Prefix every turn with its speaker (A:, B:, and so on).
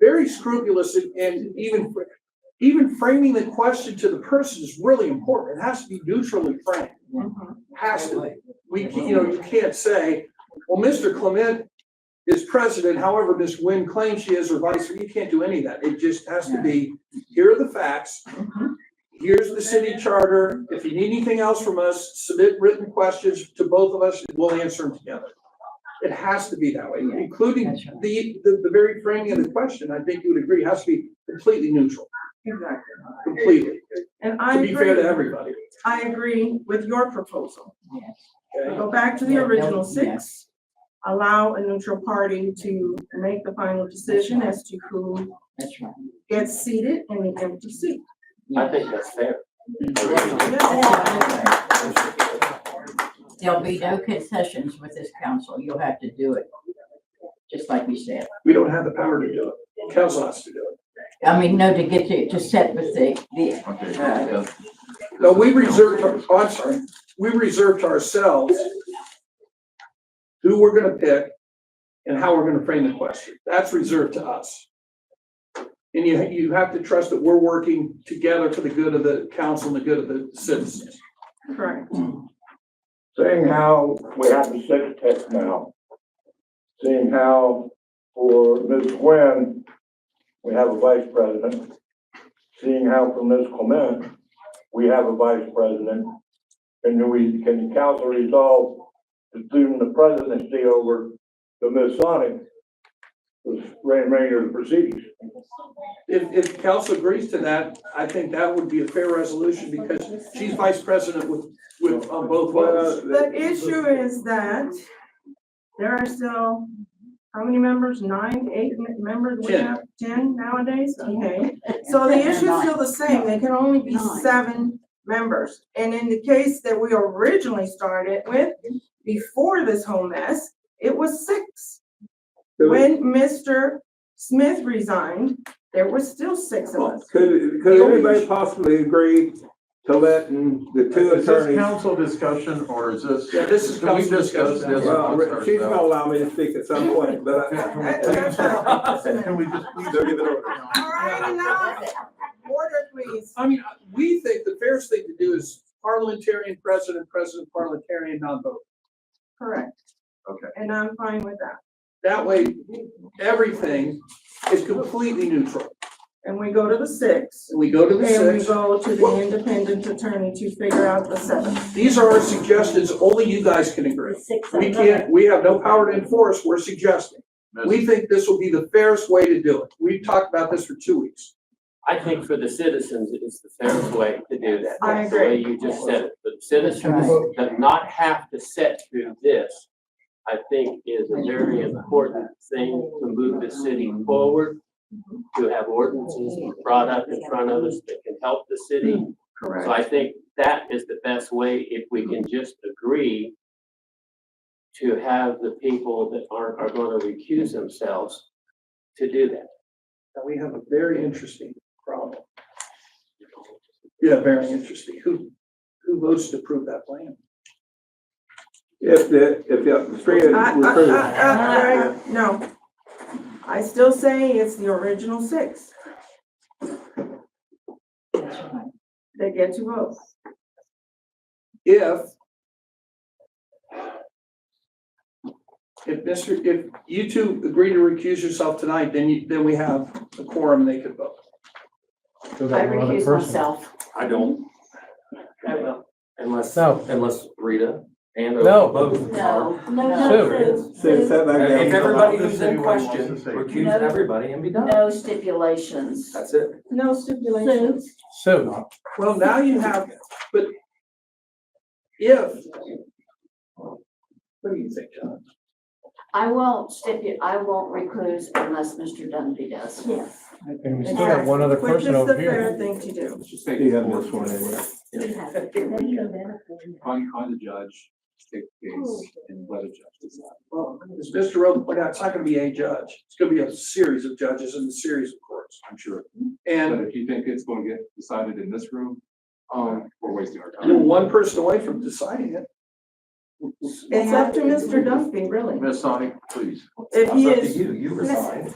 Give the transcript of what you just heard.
A: very scrupulous and- and even, fr- even framing the question to the person is really important. It has to be neutrally framed. Has to be. We, ca- you know, you can't say, well, Mr. Clement is president, however, Ms. Nguyen claims she is or vice versa. You can't do any of that. It just has to be, here are the facts. Here's the city charter. If you need anything else from us, submit written questions to both of us and we'll answer them together. It has to be that way, including
B: That's right.
A: the, the, the very framing of the question. I think you would agree, has to be completely neutral,
C: Exactly.
A: completely,
C: And I
A: to be fair to
C: agree,
A: everybody.
C: I agree with your proposal.
B: Yes.
A: okay?
C: Go back to the
B: Yeah, no,
C: original
B: yeah.
C: six. Allow a neutral party to make the final decision as to who
B: That's right.
C: gets seated in the empty seat.
D: I think that's fair.
C: Yes.
B: There'll be no concessions with this council. You'll have to do it. Just like you said.
A: We don't have the power to do it. Council has to do it.
B: I mean, no, to get to, to set with the, the,
D: Okay.
A: No, we reserved, our- oh, I'm sorry, we reserved to ourselves who we're gonna pick and how we're gonna frame the question. That's reserved to us. And you, you have to trust that we're working together for the good of the council and the good of the citizens.
C: Correct.
E: Seeing how we have the six text now, seeing how for Ms. Nguyen, we have a vice president, seeing how for Ms. Clement, we have a vice president, and do we, can the council resolve to assume the presidency over the Ms. Sonic, the remainder of the proceedings?
A: If, if council agrees to that, I think that would be a fair resolution because she's vice president with, with, on both
C: uh,
A: levels.
C: The issue is that there are still, how many members? Nine, eight m- members? We
A: Ten.
C: have Ten nowadays? Okay. So the issue is still the same, they can only be
B: Nine.
C: seven members. And in the case that we originally started with, before this whole mess, it was six. When Mr. Smith resigned, there was still six of us.
F: Could, could anybody possibly agree to letting the two
G: Is this
F: attorneys?
G: council discussion or is this?
A: Yeah, this is
G: Can we
A: council
G: discuss
A: discussion.
G: this
F: Well,
G: amongst
F: she's gonna
G: ourselves?
F: allow me to speak at some point, but I-
G: Can
C: That-
G: we
C: that's not-
G: please- Can we just? please-
F: So give it over.
C: All right, enough. Order, please.
A: I mean, uh, we think the fairest thing to do is parliamentarian president, president parliamentarian, non-voting.
C: Correct.
G: Okay.
C: And I'm fine with that.
A: That way, everything is completely neutral.
C: And we go to the six.
A: We go to the
C: And we
A: six.
C: go to the independent attorney to figure out the seven.
A: These are our suggestions. Only you guys can agree. We can't, we have no power to enforce. We're suggesting.
G: Ms.
A: We think this will be the fairest way to do it. We've talked about this for two weeks.
D: I think for the citizens, it's the fairest way to do that.
C: I
D: That's the way you just said it. The citizens that not have to sit through this, I think is a very important thing to move the city forward, to have ordinances brought up in front of us that can help the city. So I think that is the best way if we can just agree to have the people that are, are going to recuse themselves to do that.
A: Now, we have a very interesting problem. Yeah, very interesting. Who, who votes to approve that plan?
F: If the, if the three of
C: I,
F: us were
C: I-
F: approved.
C: I- I- I- no. I still say it's the original six
B: that's right.
C: that get to vote.
A: if if Mr., if you two agree to recuse yourself tonight, then you, then we have a quorum and they could vote.
H: I recuse myself.
D: I don't. I will. Unless,
H: No.
D: unless Rita and.
H: No.
I: No, no,
H: Sue.
I: no,
F: Sue,
I: Sue.
F: sat back down.
G: If everybody who's in
D: in
G: question, recuse
D: everybody and be
H: No stipulations.
D: That's it.
C: No
I: Sue.
C: stipulations.
H: Sue,
A: Well, now you have, but if, what do you think, John?
H: I won't stipulate, I won't recluse unless Mr. Dunby does.
I: Yes.
H: And we
C: still have one other person Which is the fair thing to do.
F: You have this one anyway.
J: Find, find a judge, take the case, and let a judge decide.
A: Well, as Mr. Roden pointed out, it's not gonna be a judge. It's gonna be a series of judges and a series of courts.
J: I'm sure. But
A: And
J: if you think it's going to get decided in this room, um, we're wasting our
A: you're
J: time.
A: one person away from deciding it.
C: It's up to Mr. Dunphy, really.
G: Ms. Sonic, please.
C: If he is,
G: you, you
I: resign.